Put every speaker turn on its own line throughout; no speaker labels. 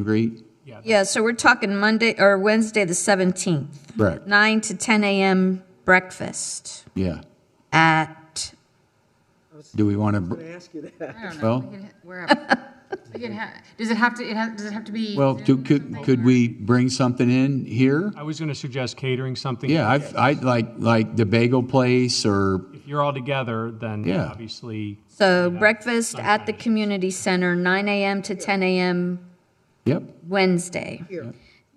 Agreed?
Yeah, so we're talking Monday, or Wednesday, the 17th,
Correct,
9 to 10 a.m. breakfast
yeah.
at,
Do we want to,
ask you that.
I don't know.
Well-
We can- We're up. We can ha does it have to, it has, does it have to be?
well, do-
Zoom or
could,
something,
could
or-
we bring something in here?
I was going to suggest catering something.
Yeah, I've, I'd like, like the bagel place or,
If you're all together, then
Yeah.
obviously,
so breakfast at the community center, 9 a.m. to 10 a.m.
yep,
Wednesday.
Here,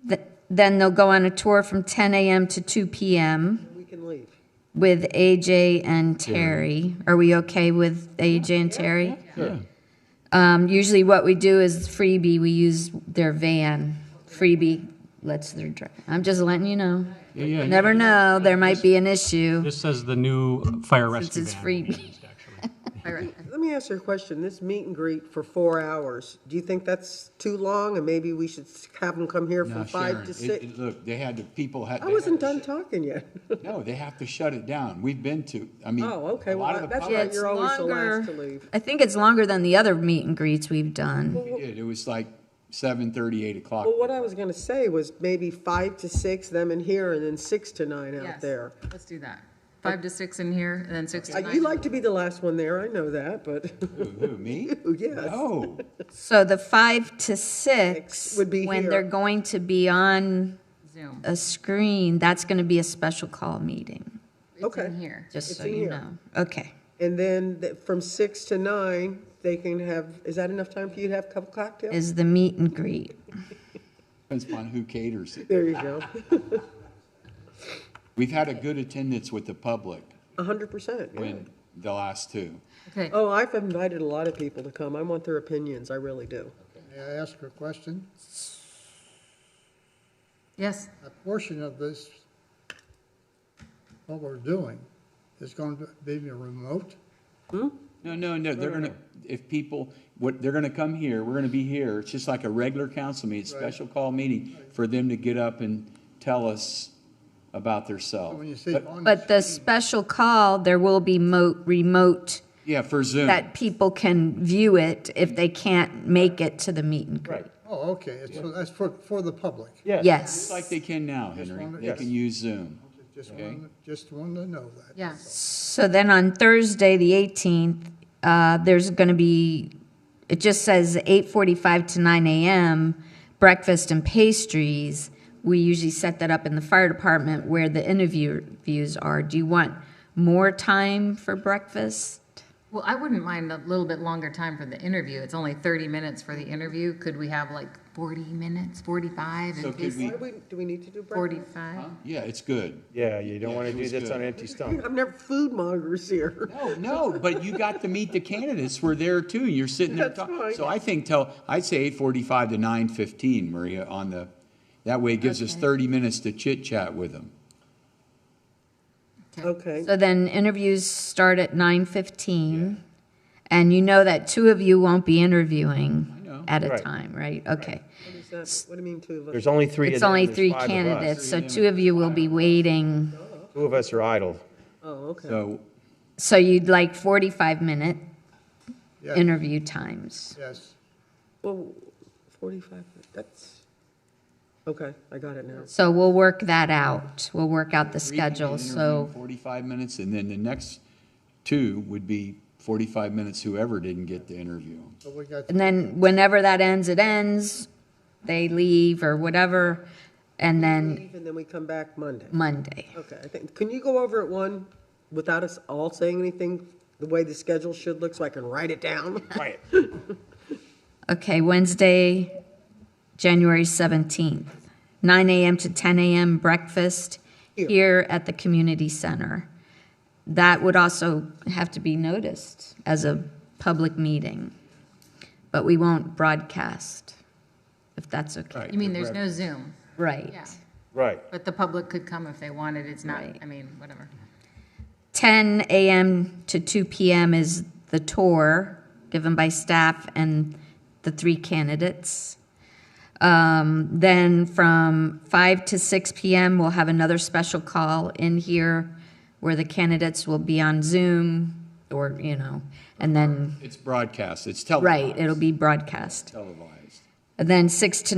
Th- Then they'll go on a tour from 10 a.m. to 2 p.m.
we can leave.
with AJ and Terry. Are we okay with AJ and Terry?
yeah.
Um, usually what we do is freebie, we use their van. Freebie lets their drive. I'm just letting you know.
Yeah, yeah,
Never know, there might be an issue.
this says the new fire
Since
rescue
it's
van.
freebie.
All right.
Let me ask you a question. This meet and greet for four hours, do you think that's too long? And maybe we should have them come here
Now,
from five
Sharon,
to
it-
six?
it- Look, they had, the people had.
I
they had
wasn't
to
done
shut-
talking yet.
No, they have to shut it down. We've been to, I mean.
Oh, okay,
a lot of
well,
the
that's
pubs-
right,
it's
you're always the last to
longer.
leave.
I think it's longer than the other meet and greets we've done.
We did. It was like seven thirty, eight o'clock.
Well, oh. what I was gonna say was maybe five to six, them in here, and then six to nine out
Yes.
there.
Let's do that. Five to six in here and then six to
I-
nine.
You like to be the last one there, I know that, but
Who, who, me? Oh.
yes.
No.
So the five to six,
Six would be
when
here.
they're going to be on
Zoom.
a screen, that's gonna be a special call meeting,
It's
Okay.
in here.
just
It's
so
in
you
here.
know. Okay.
And then th- from six to nine, they can have, is that enough time for you to have a couple cocktails?
is the meet and greet.
Depends upon who caters it.
There you go,
We've had a good attendance with the public
a hundred percent, yeah.
when the last two.
Okay.
Oh, I've invited a lot of people to come. I want their opinions, I really do.
May I ask a question?
Yes.
A portion of this, what we're doing, is going to be remote?
No, no, no, they're gonna, if people, what, they're gonna come here, we're gonna be here. It's just like a regular council meeting, special call meeting for them to get up and tell us about
So When you
themselves.
say on the
But the
screen,
special call, there will be mo- remote
Yeah, for Zoom.
that people can view it if they can't make it to the meet and greet.
oh, okay, it's- so that's for, for the public.
Just
Yes.
like they can now, Henry.
wanted-
They can use Zoom.
Just
Okay.
wanted, just wanted to know that.
Yeah.
So then on Thursday, the 18th, uh, there's going to be, it just says 8:45 to 9 a.m., breakfast and pastries. We usually set that up in the fire department where the interviews are. Do you want more time for breakfast?
Well, I wouldn't mind a little bit longer time for the interview. It's only thirty minutes for the interview. Could we have like forty minutes, forty-five
So
in
could
case?
we-
Why do we, do we need to do breakfast?
Forty-five?
Yeah, it's good.
Yeah, you don't
Yeah,
want
it
to do
was
this
good.
on an empty stomach.
I'm never food mongers here.
No, no, but you got to meet the candidates. We're there too. You're sitting there
That's
talking.
fine.
So I think tell, I'd say eight forty-five to nine fifteen, Maria, on the, that way it gives us thirty minutes to chit chat with them.
Okay,
So then interviews start at nine fifteen, and you know that two of you won't be
I know.
interviewing at a
Right.
time, right? Okay.
what is that? What do you mean two of us?
There's only three of
It's
them,
only
there's
three
five of us.
candidates, so two of you will be waiting.
Two of us are idle.
Oh, okay.
So,
So you'd like forty-five minute
Yeah.
interview times.
Yes,
Well, forty-five, that's, okay, I got it now.
So we'll work that out. We'll work out the
three can
schedule,
interview
so,
Forty-five minutes, and then the next two would be forty-five minutes whoever didn't get to interview.
so we got,
and then whenever that ends, it ends, they leave or whatever, and then
Leave And then we come back Monday.
Monday.
Okay, I think, can you go over it one without us all saying anything? The way the schedule should look, so I can write it down?
Right.
Okay, Wednesday, January 17th, 9 a.m. to 10 a.m. breakfast
Here.
here at the community center. That would also have to be noticed as a public meeting, but we won't broadcast, if that's okay.
You mean there's no Zoom?
Right.
Yeah.
Right.
But the public could come if they wanted. It's not,
Right.
I mean, whatever.
10 a.m. to 2 p.m. is the tour given by staff and the three candidates. Um, then from 5 to 6 p.m., we'll have another special call in here where the candidates will be on Zoom or, you know, and then,
It's broadcast, it's televised. Oh.
right, it'll be broadcast.
Televised.
Uh, And then six to